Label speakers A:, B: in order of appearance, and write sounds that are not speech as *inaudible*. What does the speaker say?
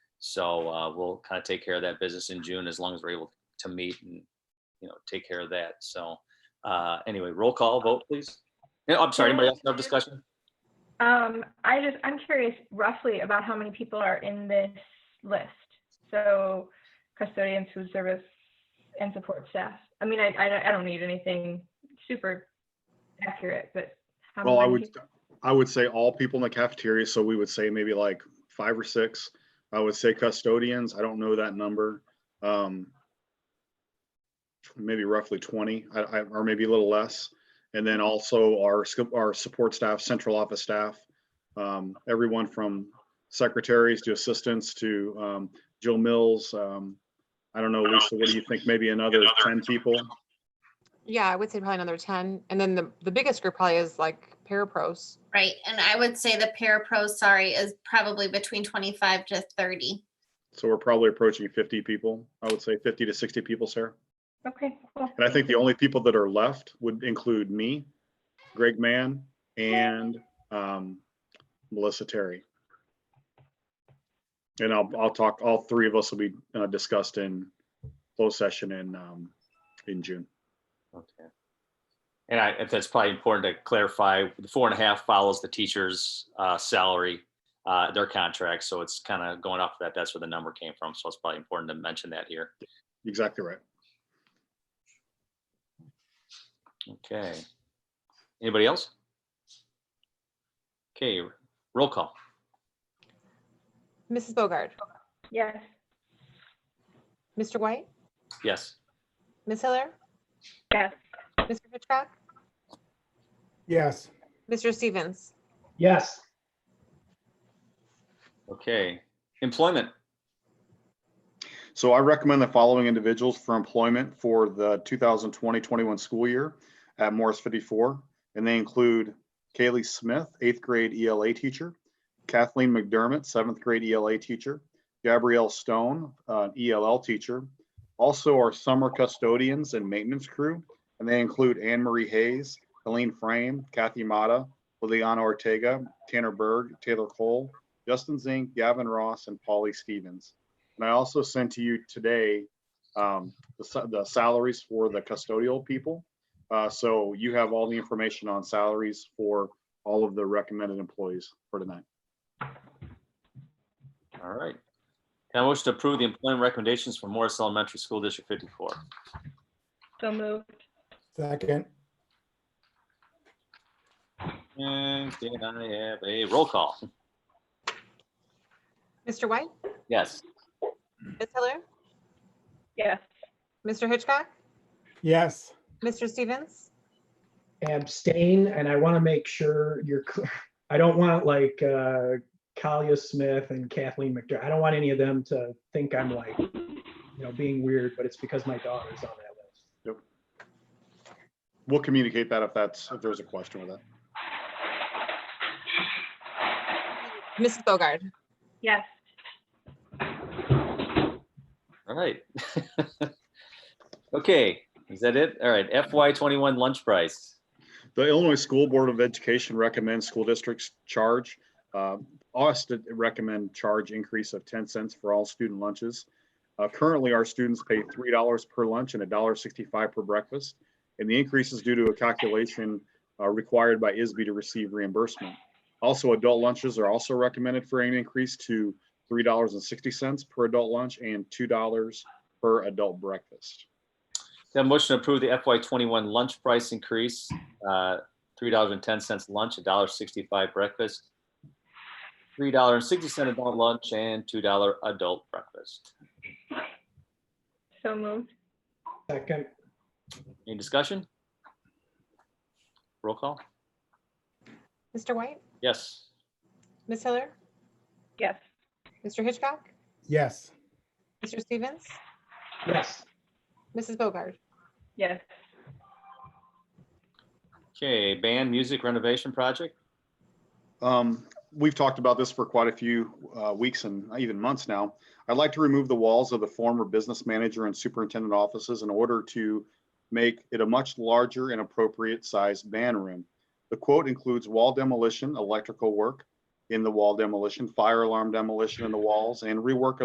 A: So uh, we'll kind of take care of that business in June as long as we're able to meet and, you know, take care of that. So uh, anyway, roll call vote, please. Yeah, I'm sorry, anybody else have discussion?
B: Um, I just, I'm curious roughly about how many people are in this list. So custodians, food service, and support staff. I mean, I, I, don't- I don't need anything super accurate, but. how
C: Well, I
B: many
C: would,
B: people-
C: I would say all people in the cafeteria, so we would say maybe like five or six. I would say custodians, I don't know that number. Um Maybe roughly twenty, I, I, or maybe a little less. And then also our, sc- our support staff, central office staff. um, Everyone from secretaries to assistants to um, Jill Mills. um, I don't know, Lisa, what do you think? Maybe another ten people?
D: Yeah, I would say probably another ten. And then the, the biggest group probably is like parapros.
E: Right, and I would say the parapro, sorry, is probably between twenty-five to thirty.
C: So we're probably approaching fifty people. I would say fifty to sixty people, Sarah.
B: Okay, cool.
C: And I think the only people that are left would include me, Greg Mann, and um, Melissa Terry. And I'll, I'll talk, all three of us will be uh, discussed in closed session in, um, in June.
A: Okay. And I, if that's probably important to clarify, the four and a half follows the teacher's uh, salary, uh, their contract. So it's kind of going off that. That's where the number came from. So it's probably important to mention that here.
C: Exactly right.
A: Okay. Anybody else? Okay, roll call.
D: Mrs. Bogard,
B: Yes.
D: Mr. White,
A: Yes.
D: Ms. Hiller,
B: Yes.
D: Mr. Hitchcock,
F: Yes.
D: Mr. Stevens.
F: Yes.
A: Okay. Employment.
C: So I recommend the following individuals for employment for the 2020-21 school year at Morris 54. And they include Kaylee Smith, eighth grade ELA teacher, Kathleen McDermott, seventh grade ELA teacher, Gabrielle Stone, uh, ELL teacher. Also our summer custodians and maintenance crew, and they include Anne Marie Hayes, Helene Frame, Kathy Mata, Liliana Ortega, Tanner Berg, Taylor Cole, Justin Zink, Gavin Ross, and Polly Stevens. And I also sent to you today um, the sa- the salaries for the custodial people. Uh, So you have all the information on salaries for all of the recommended employees for tonight.
A: All right. Can I motion to approve the employment recommendations for Morris Elementary School District 54?
B: So moved.
F: Second.
A: And can I have a roll call?
D: Mr. White,
A: Yes.
D: Ms. Hiller,
B: Yes.
D: Mr. Hitchcock,
F: Yes.
D: Mr. Stevens.
G: abstain, and I want to make sure you're, cl- *laughs* I don't want like uh Kalia Smith and Kathleen McDermott. I don't want any of them to think I'm like, you know, being weird, but it's because my daughter's on that list.
C: We'll communicate that if that's, if there's a question with that.
D: Mrs. Bogard,
B: Yes.
A: All right. *laughs* Okay, is that it? All right, FY '21 lunch price.
C: The Illinois School Board of Education recommends school districts charge, uh, us to recommend charge increase of 10 cents for all student lunches. Uh, Currently, our students pay $3 per lunch and $1.65 per breakfast. And the increase is due to a calculation uh, required by ISB to receive reimbursement. Also, adult lunches are also recommended for an increase to $3.60 per adult lunch and $2 per adult breakfast.
A: That motion to approve the FY '21 lunch price increase, uh, $3.10 lunch, $1.65 breakfast, $3.60 adult lunch, and $2 adult breakfast.
B: So moved.
G: Second,
A: Any discussion? Roll call?
D: Mr. White,
A: Yes.
D: Ms. Hiller,
B: Yes.
D: Mr. Hitchcock,
F: Yes.
D: Mr. Stevens,
G: yes,
D: Mrs. Bogard.
B: Yes.
A: Okay, band music renovation project?
C: Um, we've talked about this for quite a few uh, weeks and even months now. I'd like to remove the walls of the former business manager and superintendent offices in order to make it a much larger and appropriate sized band room. The quote includes wall demolition, electrical work in the wall demolition, fire alarm demolition in the walls, and rework of